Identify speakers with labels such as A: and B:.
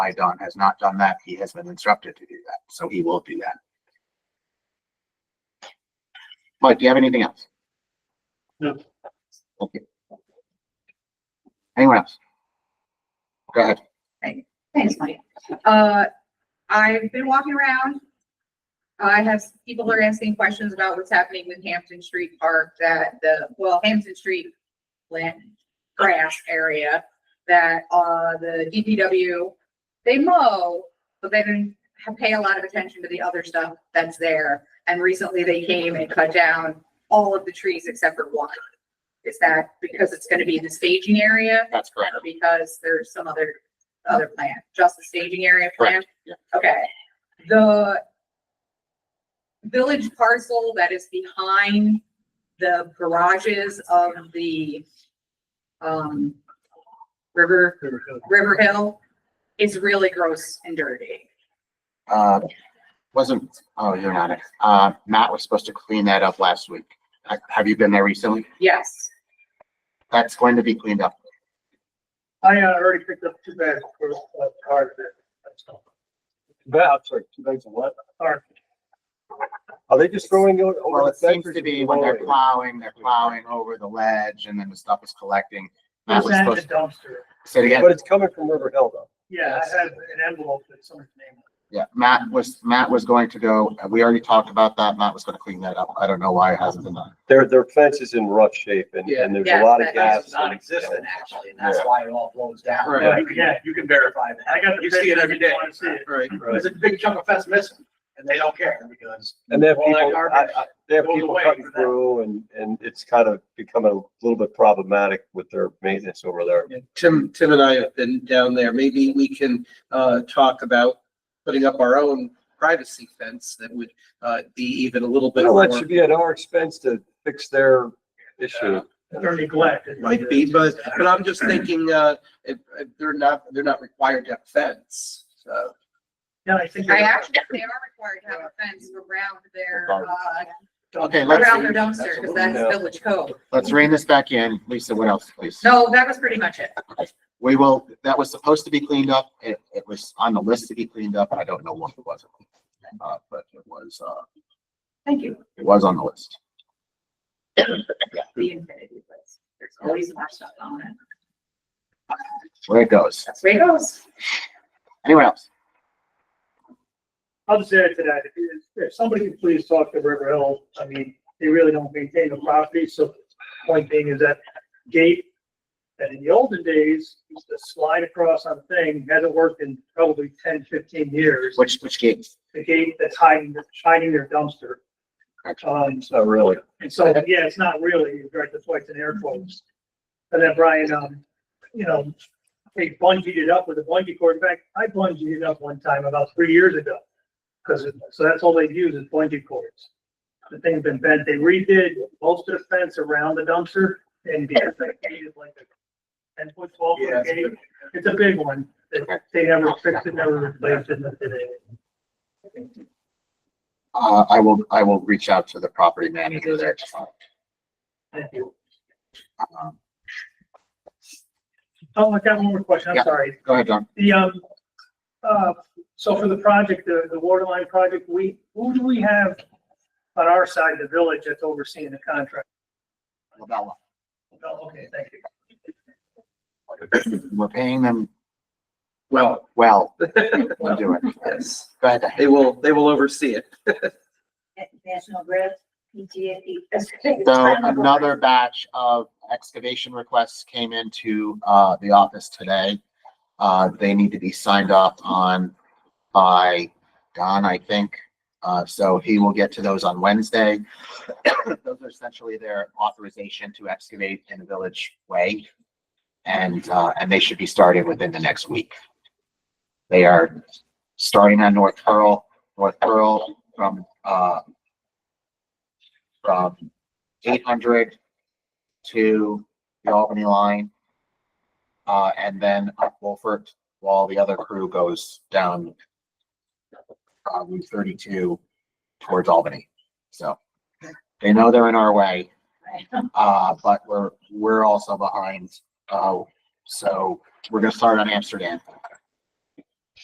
A: I Don has not done that. He has been instructed to do that, so he will do that. Mike, do you have anything else?
B: No.
A: Okay. Anyone else? Go ahead.
C: Thanks, Mike. Uh, I've been walking around. I have, people are asking questions about what's happening with Hampton Street Park, that the, well, Hampton Street land, grass area, that, uh, the DPW, they mow, but they didn't ha- pay a lot of attention to the other stuff that's there. And recently they came and cut down all of the trees except for one. Is that because it's gonna be the staging area?
A: That's correct.
C: Because there's some other, other plan, just the staging area plan?
A: Correct, yeah.
C: Okay, the village parcel that is behind the garages of the, um, River, River Hill is really gross and dirty.
A: Uh, wasn't, oh, you're not it. Uh, Matt was supposed to clean that up last week. Ha- Have you been there recently?
C: Yes,
A: That's going to be cleaned up.
B: I uh, already picked up two bags for uh, card.
D: That's like two bags of what?
B: Card.
D: Are they just throwing it
A: Well,
D: over the
A: it seems
D: fence?
A: to be when they're plowing, they're plowing over the ledge and then the stuff is collecting. Matt was
B: Send the
A: supposed,
B: dumpster.
A: say it again.
D: But it's coming from River Hill though.
B: Yeah, I have an envelope that someone's name. on
A: Yeah, Matt was, Matt was going to go, uh, we already talked about that. Matt was gonna clean that up. I don't know why it hasn't been done.
D: Their, their fence is in rough shape and,
E: Yeah.
D: and there's
C: Yeah,
D: a lot of
C: that
D: gas.
E: It's non-existent actually, and that's
A: Yeah.
E: why it all blows down.
D: Right.
E: Yeah, you- Yeah, you can verify
B: it. I
E: that.
B: got the.
E: You see it every
B: picture,
E: day.
B: you wanna see it.
E: Right.
D: Right.
E: There's a big chunk of fence missing and they don't care because.
D: And they have
E: all that
D: people, I,
E: garbage-
D: I, they have
E: goes
D: people
E: away
D: cutting
E: for that.
D: through and, and it's kind of becoming a little bit problematic with their maintenance over there.
F: Tim, Tim and I have been down there. Maybe we can uh, talk about putting up our own privacy fence that would uh, be even a little bit
D: Well,
F: more.
D: that should be at our expense to fix their issue.
B: They're neglected.
F: Might be, but, but I'm just thinking, uh, if, if they're not, they're not required to have fence, so.
B: Yeah, I think.
C: I
B: they're-
C: actually, they are required to have a fence around their, uh,
A: Okay, let's,
C: around their dumpster, because that's village code.
A: let's rein this back in. Lisa, what else, please?
C: No, that was pretty much it.
A: We will, that was supposed to be cleaned up. It, it was on the list to be cleaned up. I don't know what it was. Uh, but it was, uh,
C: Thank you.
A: it was on the list.
C: The infinity place. There's always more stuff on it.
A: Where it goes.
C: That's the way it goes.
A: Anyone else?
B: I'll just add to that, if, you- if somebody could please talk to River Hill, I mean, they really don't maintain the property, so point being is that gate, and in the olden days, used to slide across on the thing, hasn't worked in probably 10, 15 years.
A: Which, which gate?
B: The gate that's hiding, hiding their dumpster. Um,
D: It's not really.
B: and so, yeah, it's not really, you're right, that's why it's in air quotes. And then Brian, um, you know, they bungeed it up with a bungee cord. In fact, I bungeed it up one time about three years ago. Cause, it- so that's all they use is bungee cords. The thing's been bent. They redid most of the fence around the dumpster and because they needed like a ten foot, twelve
E: Yeah,
B: foot
E: it's a
B: gate. It's a big one. They- They never fixed it, never replaced it, nothing.
A: Uh, I will, I will reach out to the property manager there. to find,
B: Thank you.
A: um,
B: Oh, I got one more question.
A: Yeah.
B: I'm sorry.
A: Go ahead, Don.
B: The, um, uh, so for the project, the, the water line project, we, who do we have on our side, the village that's overseeing the contract?
A: Labella.
B: Oh, okay, thank you.
A: We're paying them
F: Well,
A: well. We'll do it.
F: yes,
A: Go ahead.
F: they will, they will oversee it.
G: National Grid, PG&E.
A: So another batch of excavation requests came into, uh, the office today. Uh, they need to be signed off on by Don, I think. Uh, so he will get to those on Wednesday. Those are essentially their authorization to excavate in a village way. And, uh, and they should be started within the next week. They are starting on North Pearl, North Pearl from, uh, from eight hundred to the Albany line. Uh, and then up Wolfert, while the other crew goes down uh, Route thirty-two towards Albany. So they know they're in our way, uh, but we're, we're also behind. Uh, so we're gonna start on Amsterdam.